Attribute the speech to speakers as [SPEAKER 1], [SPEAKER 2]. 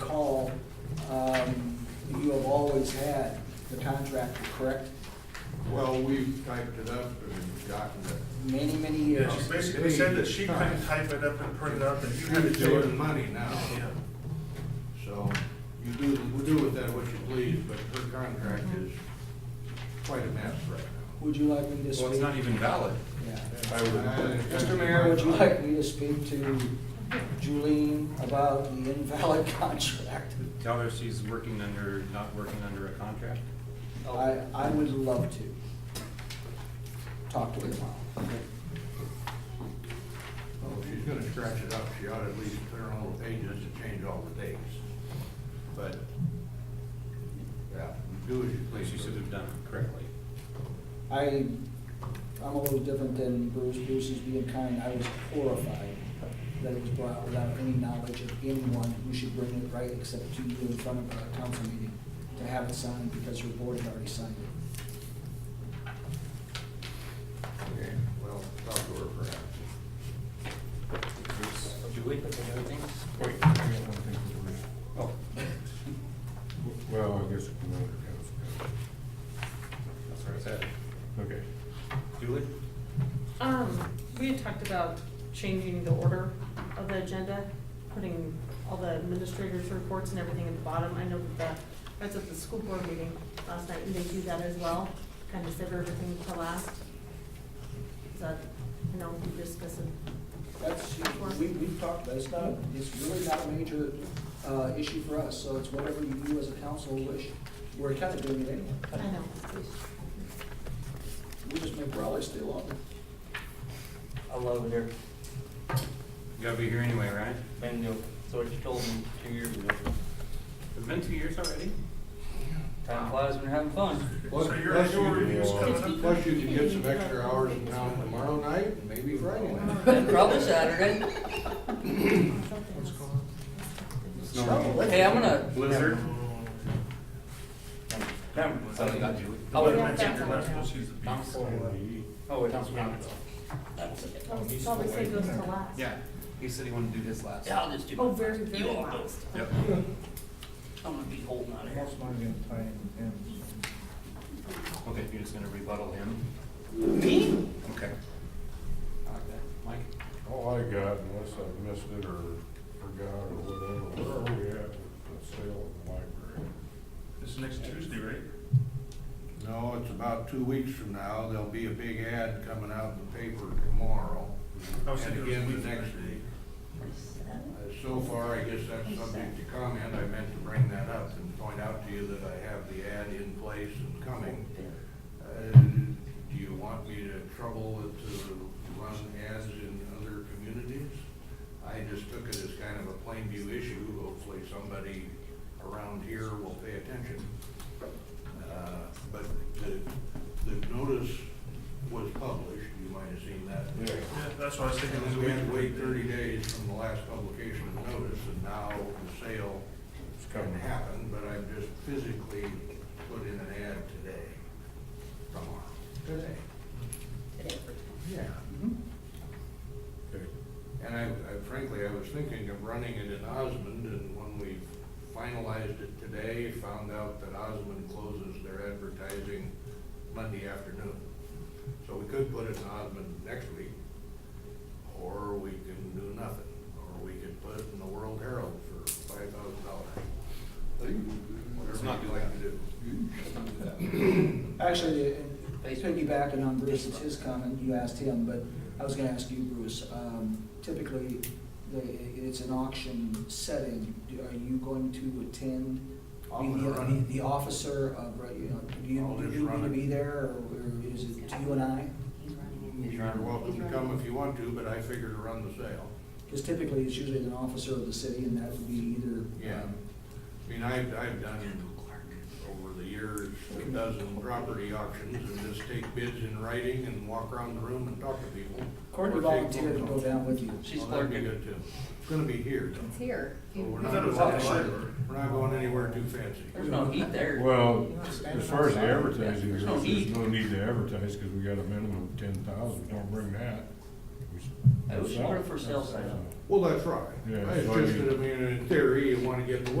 [SPEAKER 1] recall, um, you have always had the contractor, correct?
[SPEAKER 2] Well, we've typed it up and gotten it.
[SPEAKER 1] Many, many
[SPEAKER 3] Yeah,
[SPEAKER 1] years.
[SPEAKER 3] she basically said that she couldn't type it up and print it out, that you had to
[SPEAKER 2] You're
[SPEAKER 3] do
[SPEAKER 2] saving
[SPEAKER 3] it.
[SPEAKER 2] money now,
[SPEAKER 3] Yeah.
[SPEAKER 2] so you do, we do with that what you please, but her contract
[SPEAKER 1] Mm-hmm.
[SPEAKER 2] is quite a mess right now.
[SPEAKER 1] Would you like me to speak?
[SPEAKER 4] Well, it's not even valid.
[SPEAKER 1] Yeah.
[SPEAKER 4] I would-
[SPEAKER 1] Mr. Mayor, would you like me to speak to Julie about the invalid contract?
[SPEAKER 4] Tell her she's working under, not working under a contract.
[SPEAKER 1] I, I would love to. Talk to her tomorrow.
[SPEAKER 2] Well, if Oh, she's gonna scratch it up, she ought to at least clear all the pages and change all the dates. But, yeah, you do as you
[SPEAKER 4] Like
[SPEAKER 2] please.
[SPEAKER 4] she should have done it correctly.
[SPEAKER 1] I, I'm a little different than Bruce, Bruce is being kind, I was horrified that it was brought without any knowledge of anyone who should bring it right except to you in front of a council meeting to have it signed because your board had already signed it.
[SPEAKER 2] Okay, well, talk to her perhaps.
[SPEAKER 4] Julie, anything? Oh,
[SPEAKER 5] Well, I guess we can go to
[SPEAKER 4] that's where it's at.
[SPEAKER 5] council. Okay.
[SPEAKER 4] Julie?
[SPEAKER 6] Um, we had talked about changing the order of the agenda, putting all the administrators' reports and everything at the bottom. I know that the, I was at the school board meeting last night, and they do that as well, kind of save everything to last. But, you know, we discuss it.
[SPEAKER 1] That's, we, we've talked, that's not, it's really not a major, uh, issue for us, so it's whatever you as a council wish. We're kind of doing it
[SPEAKER 6] I
[SPEAKER 1] anyway.
[SPEAKER 6] know.
[SPEAKER 1] We just make Raleigh stay longer.
[SPEAKER 7] I love it here.
[SPEAKER 4] You gotta be here anyway, right?
[SPEAKER 7] Been new. So what you told me two years ago.
[SPEAKER 4] It's been two years already?
[SPEAKER 7] Time flies when you're having fun.
[SPEAKER 2] Plus-
[SPEAKER 3] So your
[SPEAKER 2] plus you
[SPEAKER 3] annual
[SPEAKER 2] can-
[SPEAKER 3] review's coming up.
[SPEAKER 2] Plus you can get some extra hours in town tomorrow night, and maybe Friday night.
[SPEAKER 7] And probably Saturday.
[SPEAKER 6] What's going
[SPEAKER 7] Hey, I'm gonna.
[SPEAKER 4] Blizzard?
[SPEAKER 7] Remember,
[SPEAKER 4] Oh,
[SPEAKER 7] something got you. I
[SPEAKER 3] But
[SPEAKER 7] would
[SPEAKER 3] I
[SPEAKER 6] Oh, Yeah.
[SPEAKER 3] mentioned your last one, she's a beast.
[SPEAKER 7] Oh, wait, that's
[SPEAKER 6] on? Probably say goes to last.
[SPEAKER 4] Yeah, he said he wanted to do this last.
[SPEAKER 7] Yeah, I'll just do.
[SPEAKER 6] Oh,
[SPEAKER 7] my
[SPEAKER 6] very,
[SPEAKER 7] best.
[SPEAKER 6] very
[SPEAKER 7] You all know.
[SPEAKER 6] last.
[SPEAKER 4] Yep.
[SPEAKER 7] I'm gonna be holding out of here.
[SPEAKER 8] Most money in time and
[SPEAKER 4] Okay, you're just gonna rebuttal him? Me? Okay. I like that. Mike?
[SPEAKER 5] All I got, unless I've missed it or forgot or whatever, where are we at with the sale of the library?
[SPEAKER 3] It's next Tuesday, right?
[SPEAKER 2] No, it's about two weeks from now, there'll be a big ad coming out in the paper tomorrow.
[SPEAKER 3] I was
[SPEAKER 2] And
[SPEAKER 3] thinking it was
[SPEAKER 2] again
[SPEAKER 3] week
[SPEAKER 2] the next
[SPEAKER 3] from
[SPEAKER 2] week. Uh, So far, I guess that's subject to comment, I meant to bring that up and point out to you that I have the ad in place and coming. Uh, Do you want me to trouble with to run ads in other communities? I just took it as kind of a plain view issue, hopefully somebody around here will pay attention. Uh, But the, the notice was published, you might have seen that.
[SPEAKER 3] Yeah, that's why I was thinking
[SPEAKER 2] And
[SPEAKER 3] it was a
[SPEAKER 2] then we
[SPEAKER 3] week.
[SPEAKER 2] had to wait thirty days from the last publication of notice, and now the sale
[SPEAKER 5] It's
[SPEAKER 2] can
[SPEAKER 5] coming.
[SPEAKER 2] happen, but I just physically put in an ad today, tomorrow, today. Yeah.
[SPEAKER 5] Okay.
[SPEAKER 2] And I, I frankly, I was thinking of running it in Osmond, and when we finalized it today, found out that Osmond closes their advertising Monday afternoon. So we could put it in Osmond next week, or we can do nothing, or we could put it in the World Herald for five thousand dollars.
[SPEAKER 4] Let's
[SPEAKER 2] Whatever
[SPEAKER 4] not do
[SPEAKER 2] you like to do.
[SPEAKER 4] Let's not do
[SPEAKER 1] Actually, uh, piggybacking on Bruce's, his comment, you asked him, but I was gonna ask you, Bruce, um, typically, the, it's an auction setting, Do- are you going to attend?
[SPEAKER 2] I'm
[SPEAKER 1] Be
[SPEAKER 2] gonna
[SPEAKER 1] the-
[SPEAKER 2] run it.
[SPEAKER 1] The officer of, right, you know, do
[SPEAKER 2] I'll
[SPEAKER 1] you,
[SPEAKER 2] just
[SPEAKER 1] do you
[SPEAKER 2] run
[SPEAKER 1] need to
[SPEAKER 2] it.
[SPEAKER 1] be there, or or is it you and I?
[SPEAKER 2] You're welcome to come if you want to, but I figure to run the sale.
[SPEAKER 1] Because typically, it's usually an officer of the city, and that would be either.
[SPEAKER 2] Yeah,
[SPEAKER 1] um,
[SPEAKER 2] I mean, I've, I've done over the years a dozen property auctions and just take bids in writing and walk around the room and talk to people.
[SPEAKER 1] Courtney
[SPEAKER 2] Or take
[SPEAKER 1] volunteered to
[SPEAKER 2] phone
[SPEAKER 1] go
[SPEAKER 2] calls.
[SPEAKER 1] down with you.
[SPEAKER 7] She's
[SPEAKER 2] Well, that'd be
[SPEAKER 7] clerking.
[SPEAKER 2] good too. It's gonna be here though.
[SPEAKER 9] It's here.
[SPEAKER 2] So we're
[SPEAKER 3] I
[SPEAKER 2] not,
[SPEAKER 3] thought it was at the library.
[SPEAKER 2] we're not going anywhere too fancy.
[SPEAKER 7] There's no heat there.
[SPEAKER 5] Well, as far as the advertising
[SPEAKER 7] There's
[SPEAKER 5] goes,
[SPEAKER 7] no
[SPEAKER 5] there's
[SPEAKER 7] need.
[SPEAKER 5] no need to advertise, because we got a minimum of ten thousand, don't bring that. We s-
[SPEAKER 7] Hey, we should
[SPEAKER 5] sell
[SPEAKER 7] put it
[SPEAKER 5] it.
[SPEAKER 7] Oh, for sale
[SPEAKER 5] That's-
[SPEAKER 7] sign up.
[SPEAKER 2] Well, that's right.
[SPEAKER 5] Yeah,
[SPEAKER 2] It's
[SPEAKER 5] so
[SPEAKER 2] just
[SPEAKER 5] you-
[SPEAKER 2] that, I mean, in theory, you wanna get the